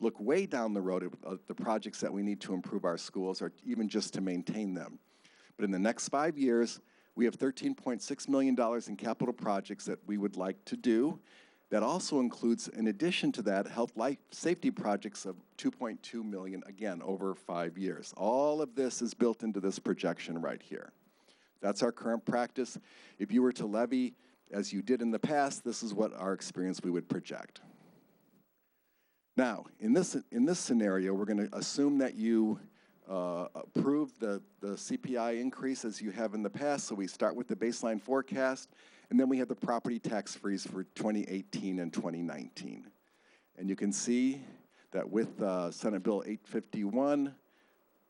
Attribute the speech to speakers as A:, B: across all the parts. A: look way down the road at uh, the projects that we need to improve our schools or even just to maintain them. But in the next five years, we have $13.6 million in capital projects that we would like to do. That also includes, in addition to that, health life safety projects of 2.2 million, again, over five years. All of this is built into this projection right here. That's our current practice. If you were to levy as you did in the past, this is what our experience we would project. Now, in this, in this scenario, we're going to assume that you uh, approve the, the CPI increase as you have in the past. So we start with the baseline forecast, and then we have the property tax freeze for 2018 and 2019. And you can see that with uh, Senate Bill 851,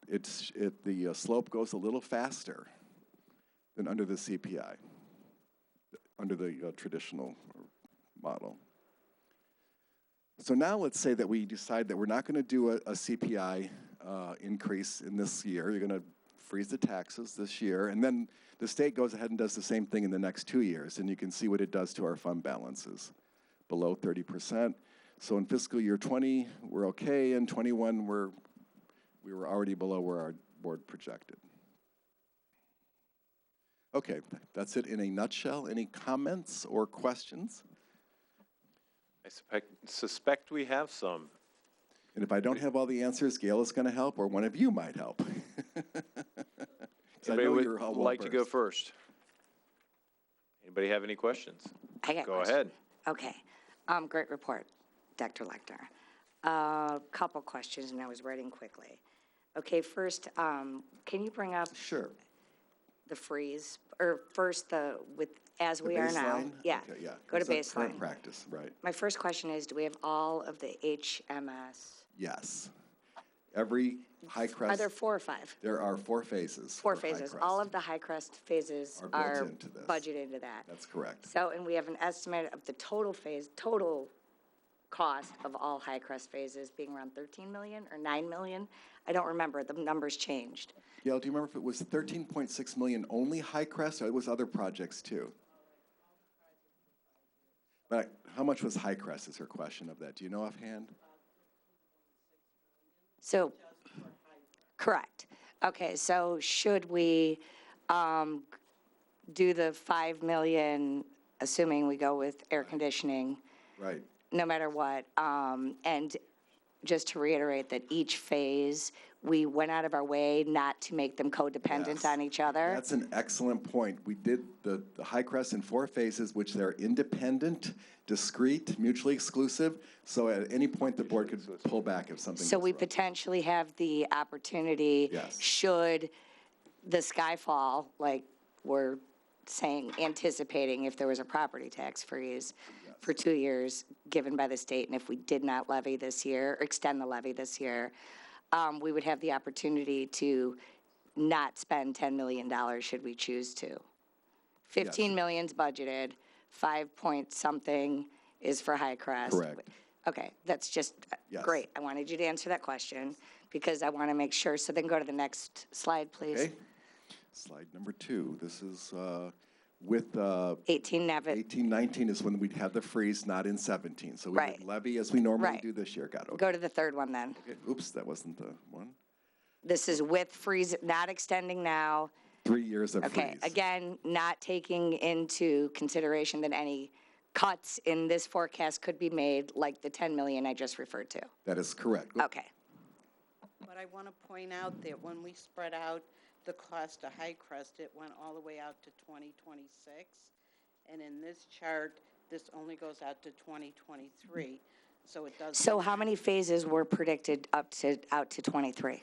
A: it's, it, the uh, slope goes a little faster than under the CPI, under the uh, traditional model. So now let's say that we decide that we're not going to do a, a CPI uh, increase in this year. You're going to freeze the taxes this year, and then the state goes ahead and does the same thing in the next two years, and you can see what it does to our fund balances, below 30%. So in fiscal year 20, we're okay, and 21, we're we were already below where our board projected. Okay, th- that's it in a nutshell. Any comments or questions?
B: I suspect, suspect we have some.
A: And if I don't have all the answers, Gail is going to help, or one of you might help. 'Cause I
B: Anybody
A: know
B: would
A: you're all
B: like to go
A: well-versed.
B: first? Anybody have any questions?
C: I got a
B: Go
C: question.
B: ahead.
C: Okay. Um, great report, Dr. Lecter. A couple questions, and I was writing quickly. Okay, first, um, can you bring up
A: Sure.
C: the freeze, or first the, with, as we are now?
A: Baseline?
C: Yeah.
A: Okay, yeah.
C: Go to
A: Is that Current
C: baseline.
A: practice, right.
C: My first question is, do we have all of the HMS?
A: Yes. Every high
C: Are
A: crest,
C: there four or five?
A: there are four phases.
C: Four
A: for high
C: phases. All
A: crest.
C: of the high crest phases
A: Are built
C: are
A: into this.
C: budgeted into that.
A: That's correct.
C: So, and we have an estimate of the total phase, total cost of all high crest phases being around 13 million or 9 million? I don't remember, the numbers changed.
A: Gail, do you remember if it was 13.6 million only high crest, or it was other projects too? But how much was high crest is her question of that. Do you know offhand?
C: So, correct. Okay, so should we um, do the 5 million, assuming we go with air conditioning,
A: Right.
C: no matter what? um, And just to reiterate that each phase, we went out of our way not to make them
A: Yes.
C: codependent on each other?
A: That's an excellent point. We did the, the high crest in four phases, which they're independent, discrete, mutually exclusive. So at any point, the board could pull back if something
C: So
A: was
C: we
A: wrong.
C: potentially have the opportunity.
A: Yes.
C: Should the sky fall, like we're saying, anticipating if there was a property tax freeze for two years given by the state, and if we did not levy this year, or extend the levy this year, um, we would have the opportunity to not spend ten million dollars should we choose to. Fifteen million's budgeted, five point something is for High Crest.
A: Correct.
C: Okay, that's just, uh,
A: Yes.
C: great. I wanted you to answer that question because I want to make sure. So then go to the next slide, please.
A: Okay. Slide number two. This is uh, with uh,
C: 18 Nevitt,
A: 18, 19 is when we'd have the freeze, not in 17. So we
C: Right.
A: would levy as we normally
C: Right.
A: do this year. Got it.
C: go to the third one then.
A: Okay. Oops, that wasn't the one.
C: This is with freeze, not extending now.
A: Three years of freeze.
C: Okay, again, not taking into consideration that any cuts in this forecast could be made, like the 10 million I just referred to.
A: That is correct.
C: Okay,
D: But I want to point out that when we spread out the cost of high crest, it went all the way out to 2026. And in this chart, this only goes out to 2023, so it does.
C: so how many phases were predicted up to, out to 23?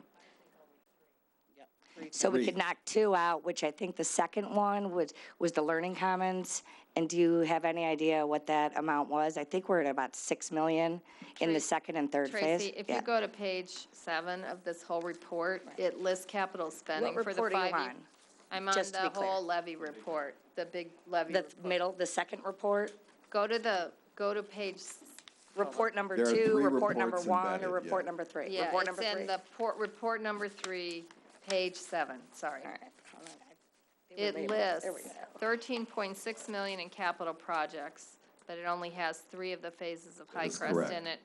D: Yep, three
C: So we could
A: Three.
C: knock two out, which I think the second one was, was the learning commons. And do you have any idea what that amount was? I think we're at about 6 million in the second and third phase.
E: Tracy, if
C: Yeah.
E: you go to page seven of this whole report, it lists capital spending for the
C: report are you
E: five. E ye-
C: on?
E: I'm on
C: Just to
E: the
C: be clear.
E: whole levy report, the big levy
C: The
E: report.
C: middle, the second report,
E: Go to the, go to page, s-
C: report number
A: There are
C: two,
A: three
C: report number
A: reports
C: one,
A: embedded,
C: or
A: yeah.
C: report number three?
E: yeah,
C: Report
E: it's
C: number
E: in
C: three.
E: the port, report number three, page seven, sorry.
C: All right, hold on, I- they were
E: It
C: labeled.
E: lists
C: There we go.
E: thirteen point six million in capital projects, but it only has three of the phases of High
A: is
E: Crest
A: correct.
E: in it.